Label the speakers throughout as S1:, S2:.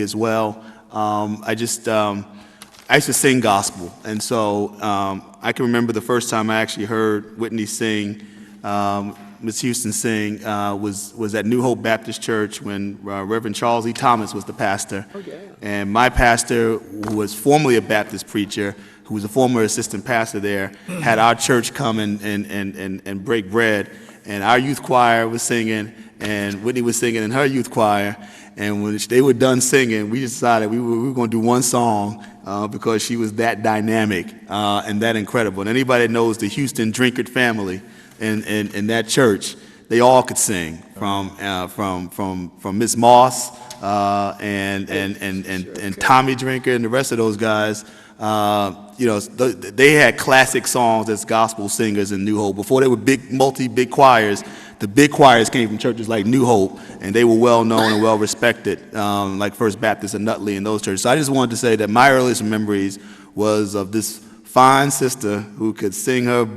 S1: as well. Um, I just, um, I used to sing gospel, and so um, I can remember the first time I actually heard Whitney sing, um, Ms. Houston sing, uh, was was at New Hope Baptist Church when uh, Reverend Charles E. Thomas was the pastor. And my pastor, who was formerly a Baptist preacher, who was a former assistant pastor there, had our church come and and and and, and break bread, and our youth choir was singing, and Whitney was singing in her youth choir. And when they were done singing, we decided we were, we were going to do one song uh, because she was that dynamic uh, and that incredible. And anybody that knows the Houston Drinkard family in, in, in that church, they all could sing from uh, from from from Miss Moss uh, and, and and and and Tommy Drinker and the rest of those guys. Uh, you know, th- they had classic songs as gospel singers in New Hope before they were big multi big choirs. The big choirs came from churches like New Hope, and they were well known and well respected, um, like First Baptist and Nutley and those churches. So I just wanted to say that my earliest memories was of this fine sister who could sing her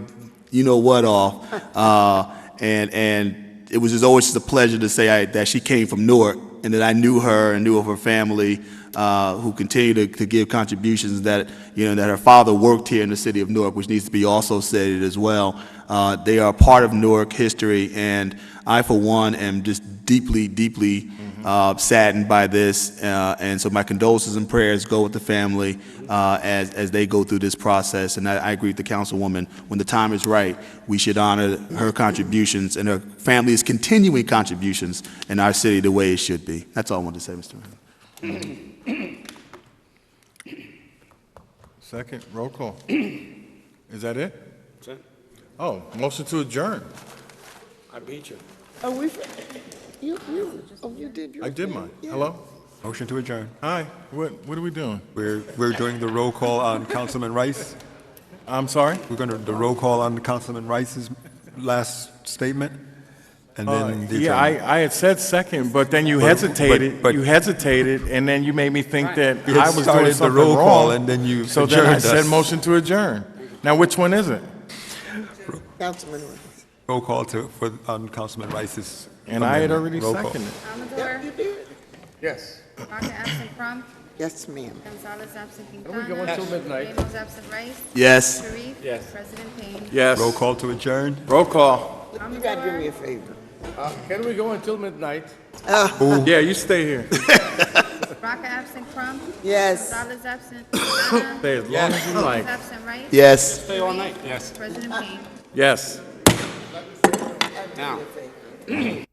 S1: you know what off. Uh, and and it was just always just a pleasure to say I, that she came from Newark and that I knew her and knew of her family, uh, who continue to, to give contributions that you know that her father worked here in the city of Newark, which needs to be also stated as well. Uh, they are part of Newark history, and I, for one, am just deeply, deeply uh, saddened by this. Uh, and so my condolences and prayers go with the family uh, as, as they go through this process. And I, I agree with the councilwoman. When the time is right, we should honor her contributions and her family's continuing contributions in our city the way it should be. That's all I wanted to say, Mr. Mayor.
S2: Second, roll call. Is that it? Oh, motion to adjourn.
S3: I beat you.
S4: Oh, we, you, you, oh, you did your.
S2: I did
S4: thing.
S2: mine.
S4: Yeah.
S2: Hello?
S5: Motion to adjourn.
S2: Hi, what, what are we doing?
S5: We're, we're doing the roll call on Councilman Rice.
S2: I'm sorry?
S5: We're going to, the roll call on Councilman Rice's last statement, and then the
S2: Uh, Yeah,
S5: adjournment.
S2: I, I had said second, but then you
S5: But-
S2: hesitated,
S5: but- but-
S2: you hesitated, and then you made me think that
S5: You had
S2: I was
S5: started
S2: doing
S5: the
S2: something
S5: roll call,
S2: wrong.
S5: and then you
S2: So then I
S5: adjourned
S2: said
S5: us.
S2: motion to adjourn. Now, which one is it?
S4: Councilman Williams.
S5: Roll call to, for, on Councilman Rice's.
S2: And I had
S5: amendment.
S2: already
S5: Roll call.
S2: seconded.
S4: Yep,
S6: Amador,
S4: you did.
S3: Yes.
S6: Baca absent Crum,
S4: Yes, ma'am.
S6: Gonzalez absent Quintana.
S3: going till midnight.
S6: Ramos absent Rice,
S1: Yes.
S6: Sharif.
S3: Yes.
S6: President Payne.
S2: Yes.
S5: Roll call to adjourn.
S2: Roll call.
S4: You gotta do me a favor.
S3: Uh, Can we go until midnight?
S2: Yeah, you stay here.
S6: Baca absent Crum,
S4: Yes.
S6: Gonzalez absent Quintana.
S2: Stay as long as you like.
S6: Ramos absent Rice.
S1: Yes.
S6: Stay all night. Yes. President Payne.
S2: Yes.